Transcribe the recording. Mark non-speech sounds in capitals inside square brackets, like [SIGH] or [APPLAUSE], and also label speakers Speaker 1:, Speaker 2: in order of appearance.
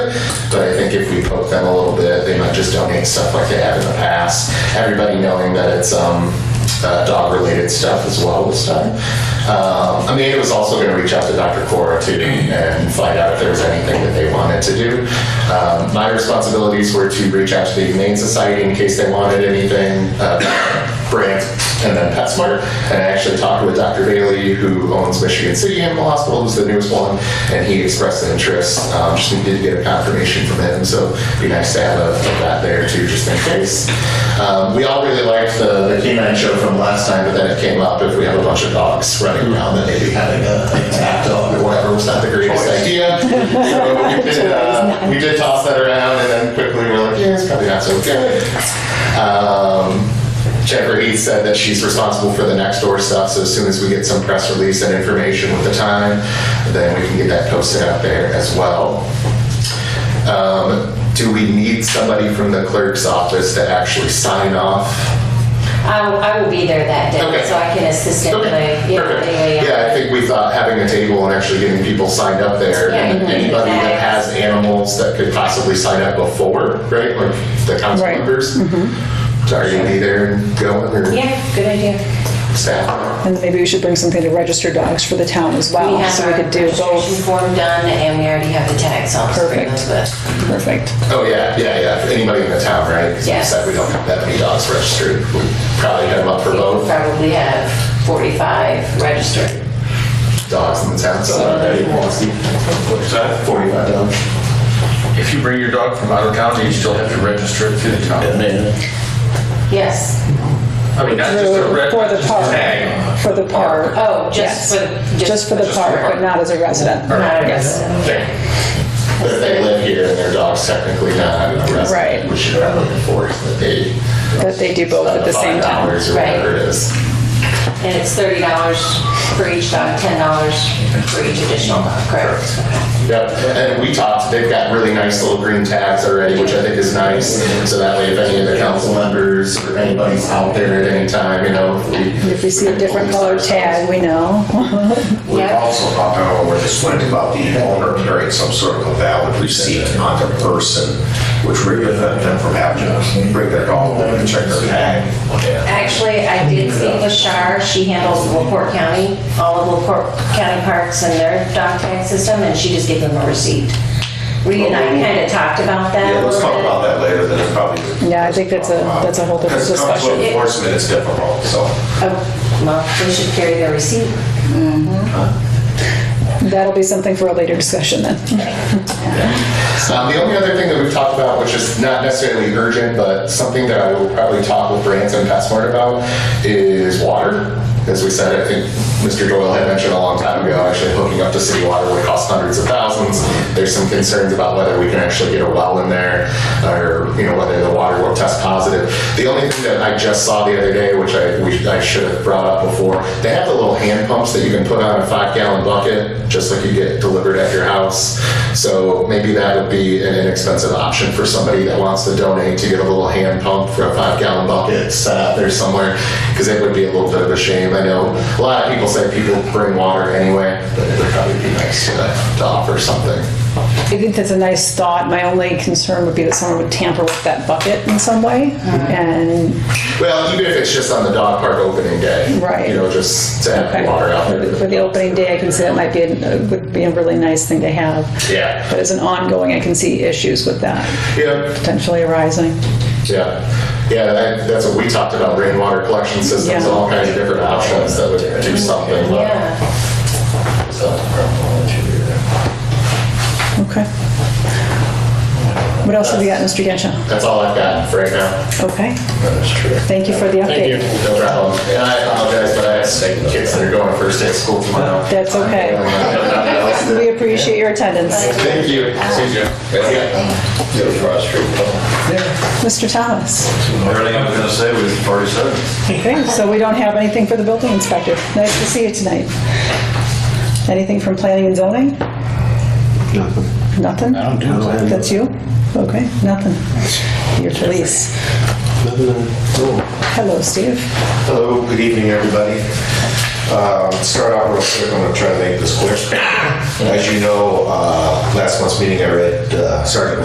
Speaker 1: But I think if we poke them a little bit, they might just donate stuff like they have in the past. Everybody knowing that it's um, uh, dog related stuff as well this time. Um, I mean, it was also going to reach out to Dr. Cora too and find out if there was anything that they wanted to do. Um, my responsibilities were to reach out to the Humane Society in case they wanted anything. Uh, Brand and then PetSmart. And I actually talked with Dr. Bailey, who owns Michigan City Animal Hospital, who's the newest one, and he expressed an interest. Um, just needed to get a confirmation from him, so it'd be nice to have a, a vet there too, just in case. Um, we all really liked the, the canine show from last time, but then it came up if we have a bunch of dogs running around, then maybe having a an attack dog or whatever was not the greatest idea. So we did, uh, we did toss that around, and then quickly we were like, yeah, it's probably not so good. Um, Jennifer Heath said that she's responsible for the next door stuff, so as soon as we get some press release and information with the time, then we can get that posted out there as well. Um, do we need somebody from the clerk's office to actually sign off?
Speaker 2: I will, I will be there that day,
Speaker 1: Okay.
Speaker 2: so I can assist in
Speaker 1: Okay,
Speaker 2: the, you know,
Speaker 1: perfect.
Speaker 2: anyway.
Speaker 1: Yeah, I think we thought having a table and actually getting people signed up there,
Speaker 2: Yeah,
Speaker 1: and
Speaker 2: mhm.
Speaker 1: anybody that
Speaker 2: Yeah.
Speaker 1: has animals that could possibly sign up before, right, like the council
Speaker 3: Right.
Speaker 1: members? Are you be there and going, or
Speaker 2: Yeah, good idea.
Speaker 1: staff?
Speaker 3: And maybe we should bring something to register dogs for the town as
Speaker 2: We
Speaker 3: well,
Speaker 2: have
Speaker 3: so
Speaker 2: our
Speaker 3: we could do
Speaker 2: registration
Speaker 3: both.
Speaker 2: form done, and we already have the tags on, so bring those with.
Speaker 3: Perfect.
Speaker 1: Oh, yeah, yeah, yeah. If Anybody in the town, right? Because
Speaker 2: Yes.
Speaker 1: We said we don't have that many dogs registered. We probably have them up for
Speaker 2: We
Speaker 1: both
Speaker 2: probably have 45 registered.
Speaker 1: dogs in the town, so already.
Speaker 4: What's that?
Speaker 1: 45 dogs.
Speaker 4: If you bring your dog from out of county, you still have to register it to the county.
Speaker 2: Yes.
Speaker 4: I mean, not just a
Speaker 3: Through-
Speaker 4: red,
Speaker 3: For the
Speaker 4: just a
Speaker 3: park,
Speaker 4: tag.
Speaker 3: for the park.
Speaker 2: Oh,
Speaker 3: Yes.
Speaker 2: just for,
Speaker 3: Just for the
Speaker 4: just for the
Speaker 3: park, but
Speaker 4: park.
Speaker 3: not as a resident.
Speaker 2: Not a
Speaker 3: Yes.
Speaker 2: resident.
Speaker 4: Okay.
Speaker 1: But if they live here and their dog's technically not a resident,
Speaker 3: Right.
Speaker 1: we should probably enforce that they.
Speaker 3: That they do both at the same
Speaker 1: Five
Speaker 3: time.
Speaker 1: dollars or whatever it is.
Speaker 2: And it's $30 for each dog, $10 for each additional dog, correct?
Speaker 1: Yep, and we talked, they've got really nice little green tags already, which I think is nice. So that way, if any of the council members or anybody's out there at any time, you know, if we.
Speaker 3: If we see a different colored tag, we know.
Speaker 5: We've
Speaker 2: Yeah.
Speaker 5: also talked about, we're just wondering about the owner carrying some sort of a valid receipt on their person, which would prevent them from having to bring their dog over and check their tag.
Speaker 2: Actually, I did see Lashar, she handles LaPorte County, all of LaPorte County parks and their dog tag system, and she just gave them a receipt. Reed and I kind of talked about that a
Speaker 5: Yeah, let's
Speaker 2: little
Speaker 5: talk about
Speaker 2: bit.
Speaker 5: that later, then it's probably.
Speaker 3: Yeah, I think that's a- that's a whole different
Speaker 5: Because it comes to
Speaker 3: discussion.
Speaker 5: Enforcement is difficult, so.
Speaker 2: Oh, Well, they should carry their receipt.
Speaker 3: That'll be something for a later discussion then.
Speaker 1: Um, the only other thing that we've talked about, which is not necessarily urgent, but something that I will probably talk with Brands and Passmart about, is water. As we said, I think Mr. Doyle had mentioned a long time ago, actually hooking up to city water would cost hundreds of thousands. There's some concerns about whether we can actually get a well in there, or, you know, whether the water will test positive. The only thing that I just saw the other day, which I, we, I should have brought up before, they have the little hand pumps that you can put on a five gallon bucket, just like you get delivered at your house. So maybe that would be an inexpensive option for somebody that wants to donate to get a little hand pump for a five gallon bucket set up there somewhere, because it would be a little bit of a shame. I know a lot of people say people bring water anyway, but it would probably be nice to, to offer something.
Speaker 3: I think that's a nice thought. My only concern would be that someone would tamper with that bucket in some way.
Speaker 2: Uh-huh.
Speaker 3: And
Speaker 1: Well, even if it's just on the dog park opening day.
Speaker 3: Right.
Speaker 1: You know, just to have
Speaker 3: okay,
Speaker 1: water out there.
Speaker 3: for the opening day, I can see that might be, a- would be a really nice thing to have.
Speaker 1: Yeah.
Speaker 3: But as an ongoing, I can see issues with that
Speaker 1: Yeah,
Speaker 3: potentially arising.
Speaker 1: yeah, yeah. That, that's what we talked about: rainwater collection systems,
Speaker 3: Yeah.
Speaker 1: all kinds of different options that would do something. but-
Speaker 2: Yeah.
Speaker 1: so.
Speaker 3: Okay. What else have we got, Mr. Gensha?
Speaker 1: That's all I've got for right now.
Speaker 3: Okay,
Speaker 1: That is true.
Speaker 3: thank you for the update.
Speaker 1: No problem. And I apologize, but I have kids that are going first day of school tomorrow. uh,
Speaker 3: That's okay. [LAUGHS] We appreciate your attendance.
Speaker 1: Thank you.
Speaker 4: See ya.
Speaker 3: Mr. Thomas?
Speaker 6: Everything I was gonna say, we've already said.
Speaker 3: Okay, so we don't have anything for the building inspector. Nice to see you tonight. Anything from planning and zoning? Nothing. Nothing?
Speaker 7: I don't do planning.
Speaker 3: That's you? Okay, nothing. Your police.
Speaker 7: Nothing at all.
Speaker 3: Hello, Steve.
Speaker 6: Hello, good evening, everybody.
Speaker 5: Um, Start out real quick, I'm gonna try to make this quick. As you know, uh, last month's meeting, I read uh, Sergeant